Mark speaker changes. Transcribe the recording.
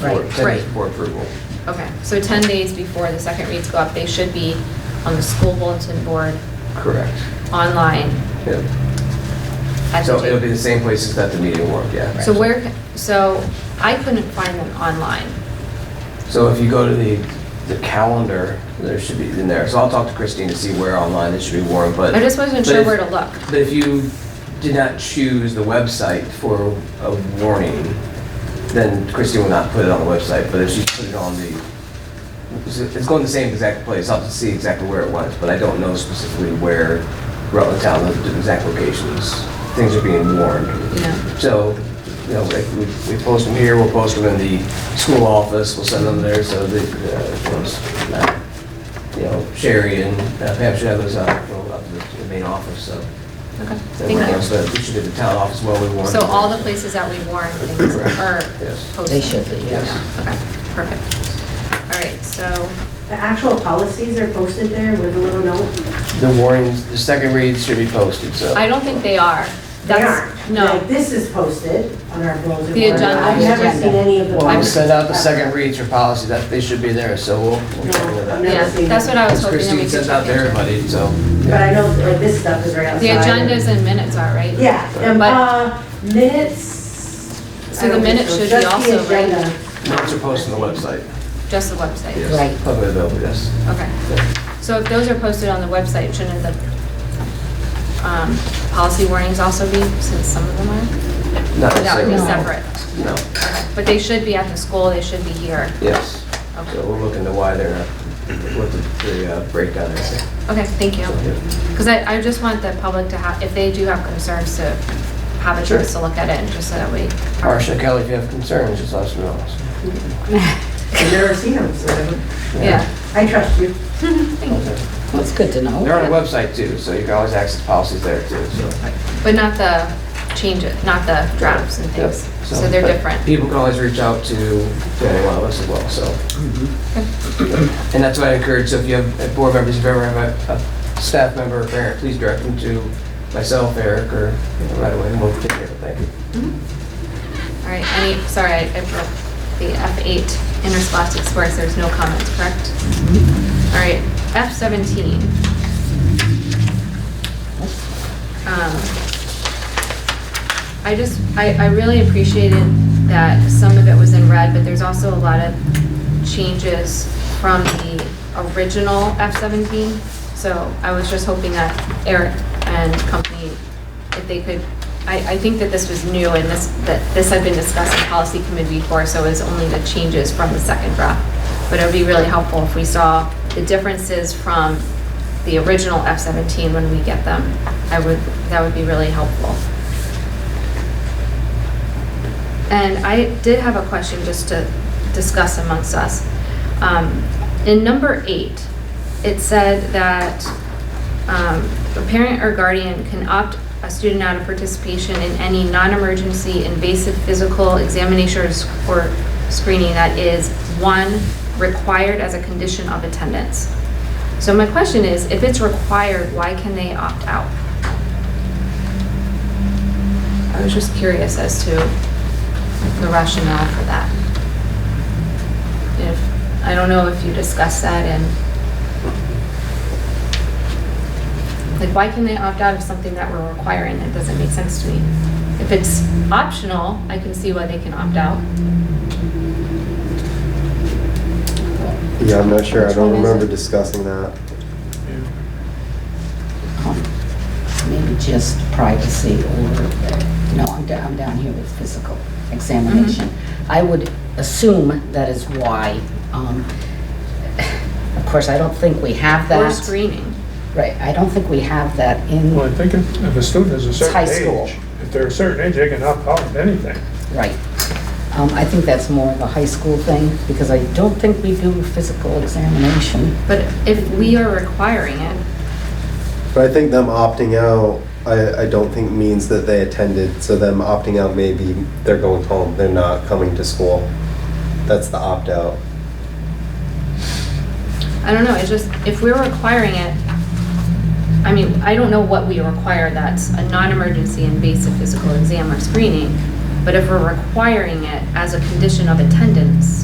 Speaker 1: Right,
Speaker 2: for- send
Speaker 3: right.
Speaker 2: it for approval.
Speaker 3: Okay, so 10 days before the second reads go up, they should be on the school bulletin board,
Speaker 2: Correct.
Speaker 3: online.
Speaker 2: Yeah.
Speaker 3: at the
Speaker 2: So it'll be
Speaker 3: J-
Speaker 2: the same places that the meeting work, yeah.
Speaker 3: So where, ca- so I couldn't find them online.
Speaker 2: So if you go to the, the calendar, there should be in there. So I'll talk to Christine to see where online it should be warned, but.
Speaker 3: I just wasn't
Speaker 2: but
Speaker 3: sure
Speaker 2: if-
Speaker 3: where to look.
Speaker 2: But if you did not choose the website for a warning, then Christine will not put it on the website, but if she put it on the, it's- it's going to the same exact place, I'll have to see exactly where it was, but I don't know specifically where Rutland Town, the exact locations, things are being warned.
Speaker 3: Yeah.
Speaker 2: So, you know, like, we we post them here, we'll post them in the school office, we'll send them there, so the, uh, you know, s- not- you know, Sherry and uh, Pam should have those out, well, up to the main office, so.
Speaker 3: Okay,
Speaker 2: that we're on,
Speaker 3: thank
Speaker 2: So we should do the town office while we
Speaker 3: you.
Speaker 2: warn.
Speaker 3: So all the places that we warn things are
Speaker 2: Yes.
Speaker 3: posted?
Speaker 1: They should be, yes.
Speaker 3: Yeah, Okay, perfect. All right, so,
Speaker 4: The actual policies are posted there with a little note.
Speaker 2: The warnings, the second reads should be posted, so.
Speaker 3: I don't think they are.
Speaker 4: They
Speaker 3: That's-
Speaker 4: aren't. Like,
Speaker 3: No,
Speaker 4: this is posted on our bulletin
Speaker 3: The
Speaker 4: board.
Speaker 3: agenda.
Speaker 4: I've never seen any of the.
Speaker 2: Well, we'll
Speaker 3: I'm-
Speaker 4: policies
Speaker 2: send out the second reads for policy, that, they should be there, so we'll. we'll
Speaker 4: No,
Speaker 2: get rid of that.
Speaker 4: I'm not-
Speaker 3: yeah,
Speaker 4: never seen
Speaker 3: that's what
Speaker 4: them.
Speaker 3: I was
Speaker 2: Because
Speaker 3: hoping that we
Speaker 2: Christine
Speaker 3: could.
Speaker 2: sends out to
Speaker 3: check into.
Speaker 2: everybody, so.
Speaker 4: But I know, like, this stuff is right outside.
Speaker 3: The agendas and minutes are, right?
Speaker 4: Yeah, and,
Speaker 3: But-
Speaker 4: uh, minutes.
Speaker 3: So
Speaker 4: I
Speaker 3: the
Speaker 4: don't think
Speaker 3: minutes
Speaker 4: so.
Speaker 3: should be
Speaker 4: Just the
Speaker 3: also, right?
Speaker 4: agenda.
Speaker 2: Notes are posted on the website.
Speaker 3: Just the website?
Speaker 2: Yes.
Speaker 1: Right.
Speaker 2: Public available, yes.
Speaker 3: Okay. So if those are posted on the website, shouldn't the um, policy warnings also be, since some of them are?
Speaker 2: Not
Speaker 3: That would be separate.
Speaker 2: No,
Speaker 3: Okay. But they should be at the school, they should be here.
Speaker 2: yes.
Speaker 3: Okay.
Speaker 2: So we'll look into why they're, not- what the- the uh, breakdown is.
Speaker 3: Okay, thank you.
Speaker 2: So, yeah.
Speaker 3: Because I, I just want the public to have, if they do have concerns, to have a chance to
Speaker 2: Sure.
Speaker 3: look at it, and just so that we.
Speaker 2: Marcia, Kelly, if you have concerns, just let us know.
Speaker 4: I've never seen them, so
Speaker 3: Yeah.
Speaker 4: I trust you.
Speaker 3: Thank you.
Speaker 1: Well, it's good to know.
Speaker 2: They're on the website too, so you can always access policies there too, so.
Speaker 3: But not the changes, not the drafts and
Speaker 2: Yep,
Speaker 3: things. So they're
Speaker 2: but
Speaker 3: different.
Speaker 2: People can always reach out to, to any one of us as well, so.
Speaker 3: Mm-hmm.
Speaker 2: And that's what I encourage, so if you have uh, board members, if you ever have a, a staff member or parent, please direct them to myself, Eric, or you know, right away, and we'll take care of it, thank you.
Speaker 3: All right, any, sorry, I I broke the F8 interscholastic sports, there's no comments, correct? All right, F17. Um, I just, I, I really appreciated that some of it was in red, but there's also a lot of changes from the original F17. So I was just hoping that Eric and company, if they could, I, I think that this was new and this, that this had been discussed in policy committee before, so it was only the changes from the second draft. But it would be really helpful if we saw the differences from the original F17 when we get them. I would, that would be really helpful. And I did have a question just to discuss amongst us. Um, In number eight, it said that um, a parent or guardian can opt a student out of participation in any non-emergency invasive physical examination or s- or screening that is, one, required as a condition of attendance. So my question is, if it's required, why can they opt out? I was just curious as to the rationale for that. If, I don't know if you discussed that and, like, why can they opt out of something that we're requiring? That doesn't make sense to me. If it's optional, I can see why they can opt out.
Speaker 5: Yeah, I'm not sure. I
Speaker 3: Which
Speaker 5: don't
Speaker 3: one is
Speaker 5: remember
Speaker 3: it?
Speaker 5: discussing that.
Speaker 1: Maybe just privacy or, no, I'm down, I'm down here with physical examination. I would assume that is why, um, of course, I don't think we have that.
Speaker 3: Or screening.
Speaker 1: Right, I don't think we have that
Speaker 6: Well,
Speaker 1: in,
Speaker 6: I think if if a student is a
Speaker 1: high
Speaker 6: certain
Speaker 1: school.
Speaker 6: age, if they're a certain age, they can opt out of anything.
Speaker 1: right. Um, I think that's more of a high school thing, because I don't think we do physical examination.
Speaker 3: But if we are requiring it,
Speaker 5: But I think them opting out, I, I don't think means that they attended. So them opting out, maybe they're going home. They're not coming to school. That's the opt out.
Speaker 3: I don't know, it's just, if we're requiring it, I mean, I don't know what we require that's a non-emergency invasive physical exam or screening, But if we're requiring it as a condition of attendance,